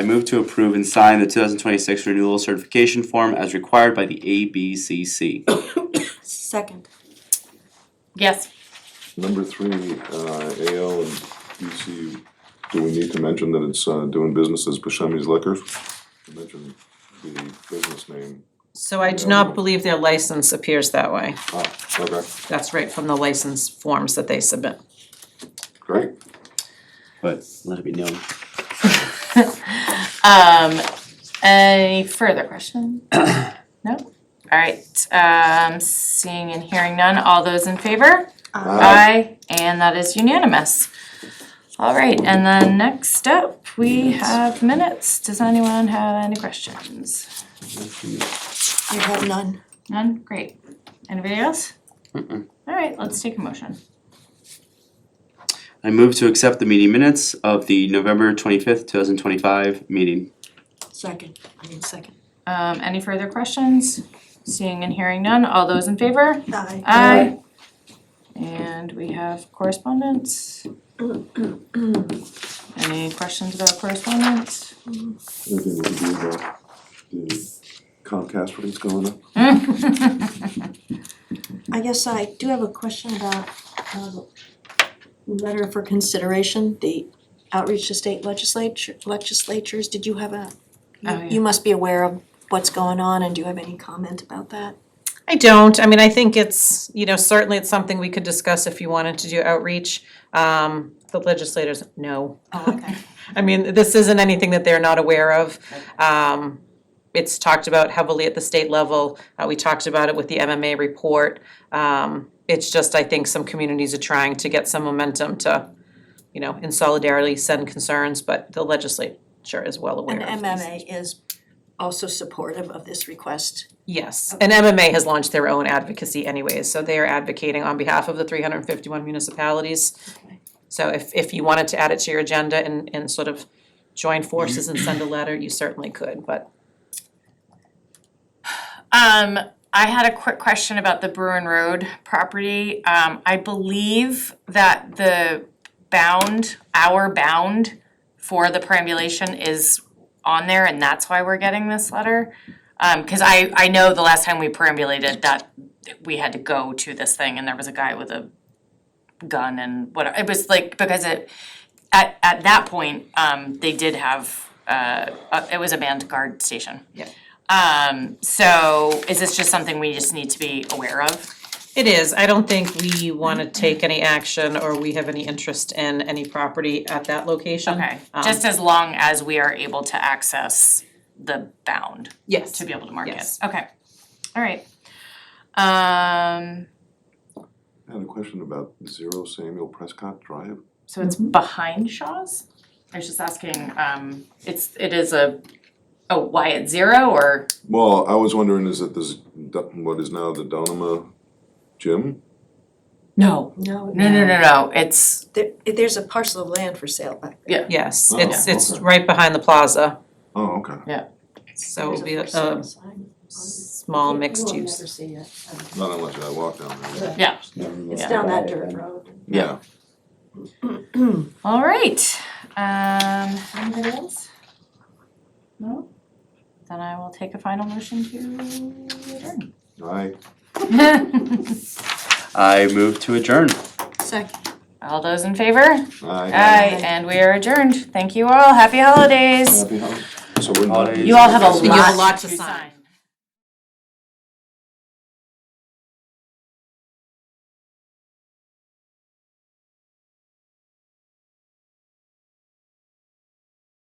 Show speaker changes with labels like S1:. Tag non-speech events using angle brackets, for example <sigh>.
S1: I move to approve and sign the two thousand twenty-six renewal certification form as required by the ABCC.
S2: Second.
S3: Yes,
S4: Number three, uh, AL and BC, do we need to mention that it's, uh, doing business as Buscemi's Liquors? Mention the business name.
S5: So I do
S4: No.
S5: not believe their license appears that way.
S4: Ah, okay,
S5: That's right from the license forms that they submit.
S4: great.
S1: But let it be known.
S3: <laughs> um, any further <coughs> question? No? Alright, um, seeing and hearing none, all those in favor? Aye, and that is unanimous. All right, and then next up, we have minutes. Does anyone have any questions?
S2: I have none.
S3: None? Great. Anybody else? All right, let's take a motion.
S1: I move to accept the meeting minutes of the November twenty-fifth, two thousand twenty-five meeting.
S2: Second. I mean, second.
S3: Um, any further questions? Seeing and hearing none, all those in favor?
S2: Aye.
S5: Uh,
S3: Aye. And we have correspondence. Any questions about correspondence? <laughs>
S4: Anything we can do about the Comcast rates going up?
S2: I guess I do have a question about, um, letter for consideration, the outreach to state legislature, legislatures, did you have a?
S3: Oh,
S2: you-
S3: yeah.
S2: You must be aware of what's going on, and do you have any comment about that?
S5: I don't, I mean, I think it's, you know, certainly it's something we could discuss if you wanted to do outreach. Um, the legislators, no.
S2: Oh, okay.
S5: I mean, this isn't anything that they're not aware of. Um, it's talked about heavily at the state level, uh, we talked about it with the MMA report. Um, it's just, I think some communities are trying to get some momentum to, you know, in solidarity send concerns, but the legislature is well aware
S2: And
S5: of these.
S2: MMA is also supportive of this request.
S5: Yes, and MMA has launched their own advocacy anyways, so they are advocating on behalf of the three hundred and fifty-one municipalities. So if, if you wanted to add it to your agenda and, and sort of join forces and send a letter, you certainly could, but
S3: Um, I had a quick question about the Bruin Road property. Um, I believe that the bound, our bound for the perambulation is on there and that's why we're getting this letter. Um, cause I, I know the last time we perambulated that we had to go to this thing and there was a guy with a gun and whatever. It was like, because it, at, at that point, um, they did have, uh, uh, it was a manned guard station.
S5: Yeah.
S3: Um, so is this just something we just need to be aware of?
S5: It is, I don't think we wanna take any action or we have any interest in any property at that location.
S3: Okay,
S5: Um,
S3: just as long as we are able to access the bound
S5: Yes.
S3: to be able to mark it,
S5: Yes.
S3: okay, alright. Um,
S4: I had a question about Zero Samuel Prescott Drive.
S3: so it's behind Shaw's? I was just asking, um, it's, it is a, oh, why it's zero or,
S4: Well, I was wondering, is it this, what is now the Donema Gym?
S3: no,
S2: No.
S3: no, no, no, no, it's,
S2: There, there's a parcel of land for sale back there.
S5: Yes,
S4: Oh,
S5: it's, it's
S4: okay.
S5: right behind the plaza,
S4: Oh, okay.
S5: so it would be a,
S2: There's for sale
S5: a
S2: sign.
S5: small mixed
S2: You will
S5: use.
S2: never see it.
S4: Not unless I walk down there.
S3: yeah,
S2: It's down that dirt road.
S4: Yeah.
S3: <clears throat> alright, um, anybody else? No? Then I will take a final motion to adjourn.
S4: Aye.
S1: I move to adjourn.
S2: Second.
S3: <laughs> All those in favor?
S4: Aye.
S3: Aye, and we are adjourned. Thank you all. Happy holidays.
S4: So we're not.
S1: Holidays.
S3: You all have a
S5: You have a
S3: lot
S5: lot
S3: to
S5: to sign.
S3: sign.